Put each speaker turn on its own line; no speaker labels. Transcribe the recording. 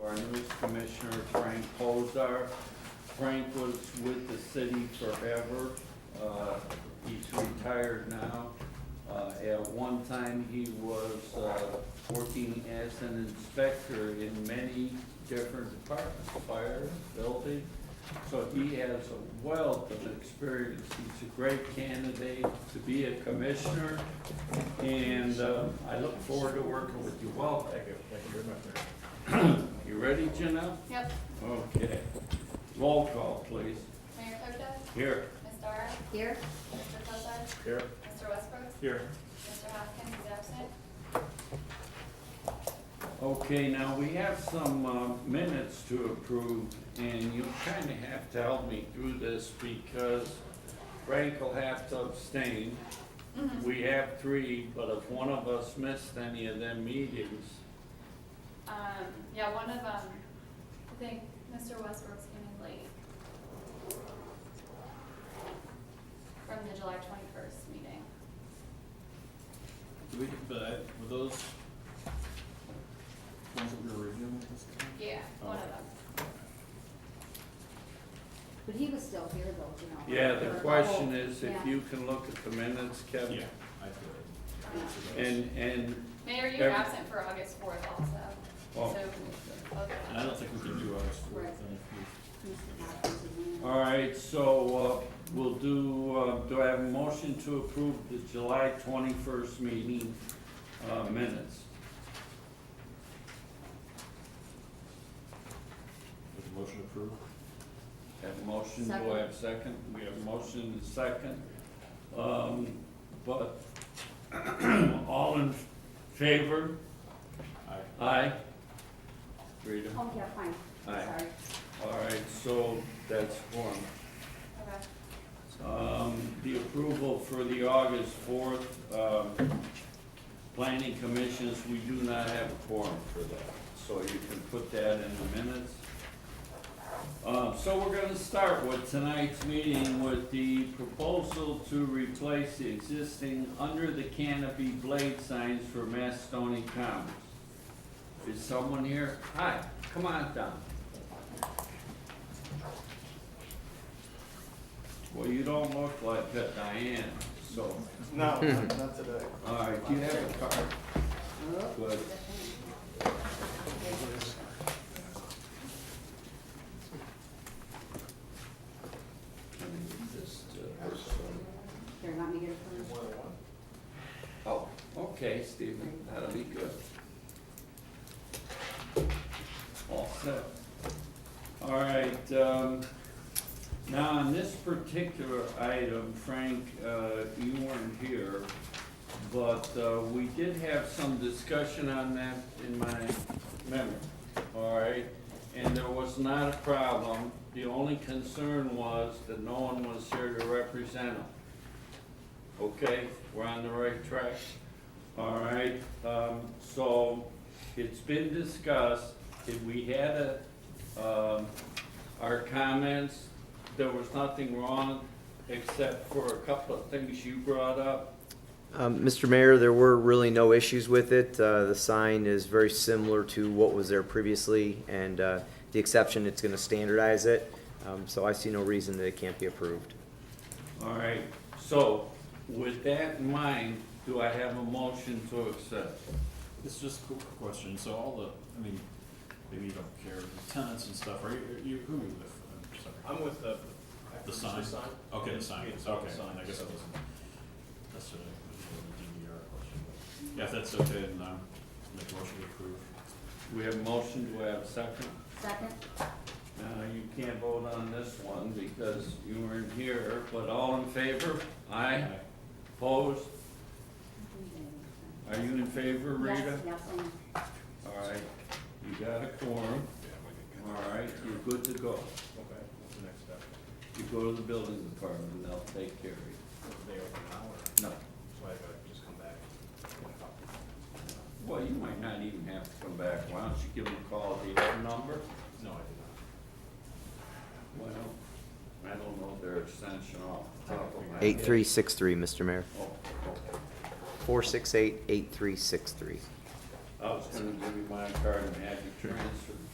Service Commissioner Frank Pozar. Frank was with the city forever. Uh, He's retired now. Uh, At one time, he was uh, working as an inspector in many different departments, fire, building. So he has a wealth of experience. He's a great candidate to be a commissioner, and uh, I look forward to working with you. Welcome.
Thank you, thank you very much, Mayor.
You ready, Janelle?
Yep.
Okay. Roll call, please.
Mayor Kojal?
Here.
Ms. Dara?
Here?
Mr. Cosar?
Here?
Mr. Westbrook?
Here.
Mr. Hopkins is absent.
Okay, now we have some uh, minutes to approve, and you kind of have to help me through this because Frank will have to abstain. We have three, but if one of us missed any of them meetings,
Um, yeah, one of them, I think Mr. Westbrook's came in late. From the July twenty-first meeting.
Do we, but I- were those ones that we were reviewing at this time?
Yeah, one of them.
But he was still here though, you know.
yeah, the question is if
Oh, Yeah.
you can look at the minutes, Kevin.
Yeah, I did.
And, and,
Mayor, you're
Every-
absent for August fourth also.
oh,
So, okay.
And I don't think we can do ours for,
Right. Mr. Hopkins is in.
all right, so uh, we'll do, uh, do I have a motion to approve the July twenty-first meeting uh, minutes?
with the motion approved.
Have a motion, do I have a second? We have a motion and a second. Um, But all in favor?
Aye.
Aye. Rita?
Oh, yeah, fine.
Aye.
Sorry.
All right, so that's one.
Okay.
Um, The approval for the August 4th um, planning commissions, we do not have a quorum for that, so you can put that in the minutes. Uh, So we're going to start with tonight's meeting with the proposal to replace the existing under the canopy blade signs for Mastoni Commons. Is someone here? Hi, come on down. Well, you don't look like a Diane, so.
No, not not today.
All right, do you have a card?
Oh,
Good.
the thing. Here, let me get it for
More than one?
Oh, okay, Stephen, that'll be good. All set. All right, um, now on this particular item, Frank, uh, you weren't here, but, uh, we did have some discussion on that in my memory, all right? And there was not a problem, the only concern was that no one was here to represent them. Okay, we're on the right track. All right, um, so it's been discussed, if we had a, um, our comments, there was nothing wrong except for a couple of things you brought up.
Um, Mr. Mayor, there were really no issues with it. Uh, The sign is very similar to what was there previously, and uh, the exception, it's going to standardize it. Um, So I see no reason that it can't be approved.
All right, so with that in mind, do I have a motion to accept?
It's just a quick question, so all the, I mean, maybe you don't care, the tenants and stuff, are you, are you, who are you with? I'm sorry.
I'm with the.
The sign? Okay, the sign,
Yeah,
okay,
it's all the sign,
I guess
so-
that wasn't necessarily a DVR question, but, yeah, if that's okay, then I'm, make a motion to approve.
We have a motion, do I have a second?
Second?
Now, you can't vote on this one because you weren't here, but all in favor? Aye.
Aye.
Opposed? Are you in favor, Rita?
Yes, yes, and
All right, you got a quorum,
Yeah, we can-
all right, you're good to go.
Okay, what's the next step?
You go to the building department, and they'll take care of you.
They open now, or,
No,
so I gotta just come back?
well, you might not even have to come back, why don't you give them a call, do you have a number?
No, I did not.
Well, I don't know their extension off the top of my head.
8363, Mr. Mayor.
Oh, okay.
468-8363.
I was gonna give you my card and have you transferred.